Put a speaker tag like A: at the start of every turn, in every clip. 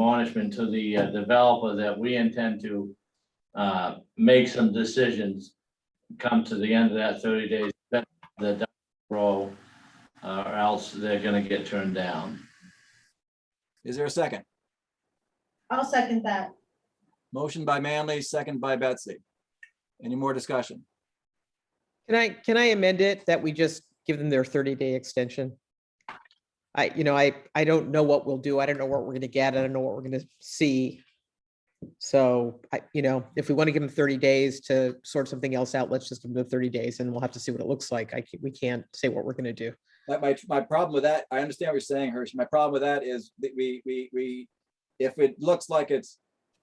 A: admonishment to the uh, developer that we intend to uh, make some decisions come to the end of that thirty days, that the dock row, uh, or else they're gonna get turned down.
B: Is there a second?
C: I'll second that.
B: Motion by Manley, second by Betsy. Any more discussion?
D: Can I, can I amend it that we just give them their 30-day extension? I, you know, I, I don't know what we'll do. I don't know what we're going to get. I don't know what we're going to see. So I, you know, if we want to give them 30 days to sort something else out, let's just give them the 30 days and we'll have to see what it looks like. I, ca- we can't say what we're going to do.
B: That my, my problem with that, I understand what you're saying, Hirsch. My problem with that is that we, we, we, if it looks like it's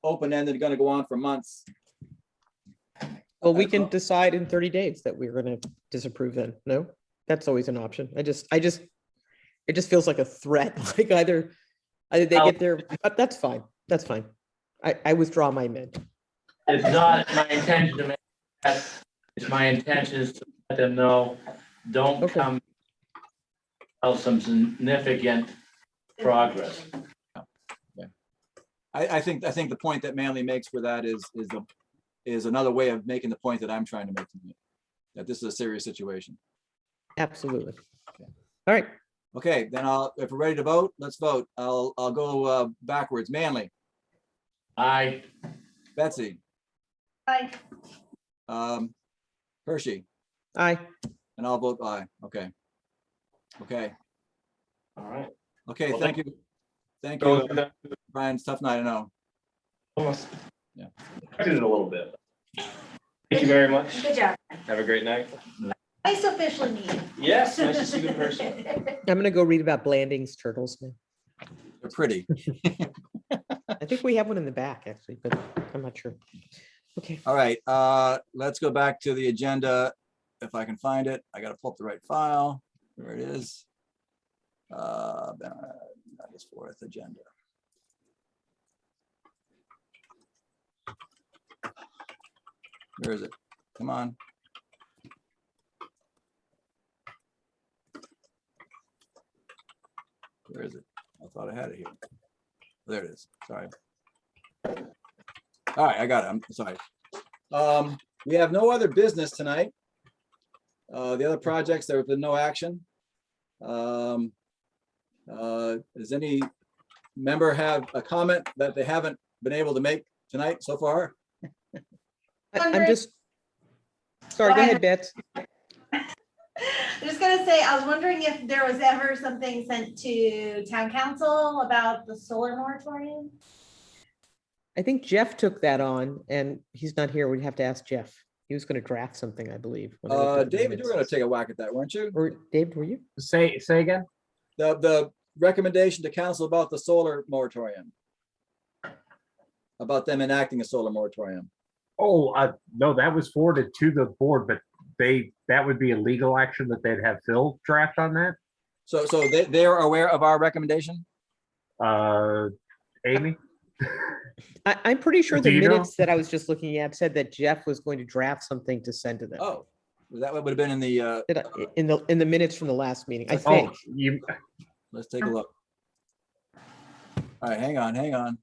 B: open-ended, gonna go on for months,
D: Well, we
B: That's
D: can
B: all.
D: decide in 30 days that we're going to disapprove then. No, that's always an option. I just, I just, it just feels like a threat, like either, either they
A: Well-
D: get their,
B: Oh.
D: but that's fine. That's fine. I, I withdraw my amendment.
A: It's not my intention to make that, it's my intention is to let them know, don't
D: Okay.
A: come out some significant progress.
B: I, I think, I think the point that Manley makes for that is, is the, is another way of making the point that I'm trying to make. tonight, That this is a serious situation.
D: Absolutely. All right,
B: Okay, then I'll, if we're ready to vote, let's vote. I'll, I'll go uh, backwards. Manley,
A: I,
B: Betsy,
C: Aye.
B: um, Hershey,
D: aye.
B: and I'll vote aye. Okay. Okay,
A: all right.
B: okay,
A: Well,
B: thank you. Thank you,
E: Go
B: uh,
E: with that.
B: Brian. It's a Tough night, I know.
E: Almost.
B: Yeah.
E: I did it a little bit. Thank you very much.
C: Good job.
E: Have a great night.
C: Nice official meeting.
E: Yes, nice to see you in person.
D: I'm gonna go read about Blanding's turtles now.
B: They're pretty.
D: I think we have one in the back, actually, but I'm not sure. Okay,
B: All right, uh, let's go back to the agenda. If I can find it, I gotta pull up the right file. There it is. Uh, that is fourth agenda. Where is it? Come on. Where is it? I thought I had it here. There it is. Sorry. All right, I got it. I'm sorry. Um, we have no other business tonight. Uh, the other projects, there have been no action. Um, uh, does any member have a comment that they haven't been able to make tonight so far?
D: I- I'm
C: Wondering-
D: just. Sorry,
C: Go
D: go
C: ahead.
D: ahead, Bets.
C: I'm just gonna say, I was wondering if there was ever something sent to town council about the solar moratorium?
D: I think Jeff took that on and he's not here. We'd have to ask Jeff. He was gonna draft something, I believe. when I looked
B: Uh,
D: at the
B: David, you were gonna
D: minutes.
B: take a whack at that, weren't you?
D: Or David, were you?
F: Say, say again?
B: The, the recommendation to council about the solar moratorium. About them enacting a solar moratorium.
F: Oh, uh, no, that was forwarded to the board, but they, that would be a legal action that they'd have Phil draft on that.
B: So, so they, they are aware of our recommendation?
F: Uh, Amy?
D: I, I'm pretty sure
F: Do
D: the
F: you know?
D: minutes that I was just looking at said that Jeff was going to draft something to send to them.
B: Oh, that would have been in the, uh,
D: Did I- In the, in the minutes from the last meeting, I
F: Oh,
D: think.
F: you,
B: Let's take a look. All right, hang on, hang on.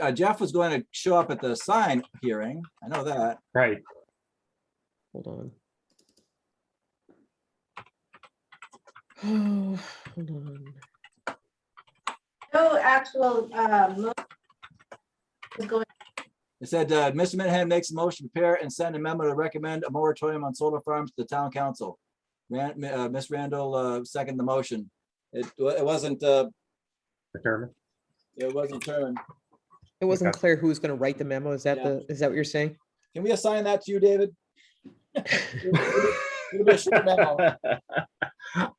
B: Uh, Jeff was going to show up at the sign hearing. I know that.
F: right.
D: Hold on. Oh, hold on.
C: No actual, um, was going,
B: It said, uh, Mr. Minahan makes a motion to prepare and send a memo to recommend a moratorium on solar farms to the town council. Ran, uh, Ms. Randall, uh, seconded the motion. It, wa- it wasn't, uh,
F: Determine.
B: it wasn't turned.
D: It wasn't clear who was going to write the memo. Is that
B: Yeah.
D: the, is that what you're saying?
B: Can we assign that to you, David? It'll be a short memo.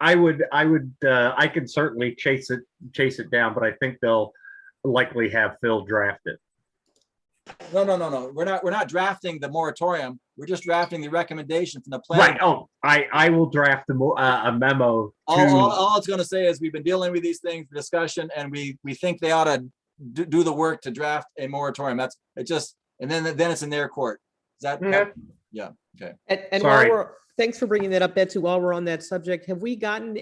F: I would, I would, uh, I could certainly chase it, chase it down, but I think they'll likely have Phil draft it.
B: No, no, no, no. We're not, we're not drafting the moratorium. We're just drafting the recommendation from the plan.
F: Right, oh, I, I will draft the, mo- uh, a memo
B: All, all,
F: to,
B: all it's gonna say is we've been dealing with these things, for discussion, and we, we think they ought to do, do the work to draft a moratorium. That's, it just, and then, then it's in their court. Is that,
F: Yeah.
B: Yeah, okay.
D: And, and while
F: Sorry.
D: we're, thanks for bringing that up, Betsy. While we're on that subject, have we gotten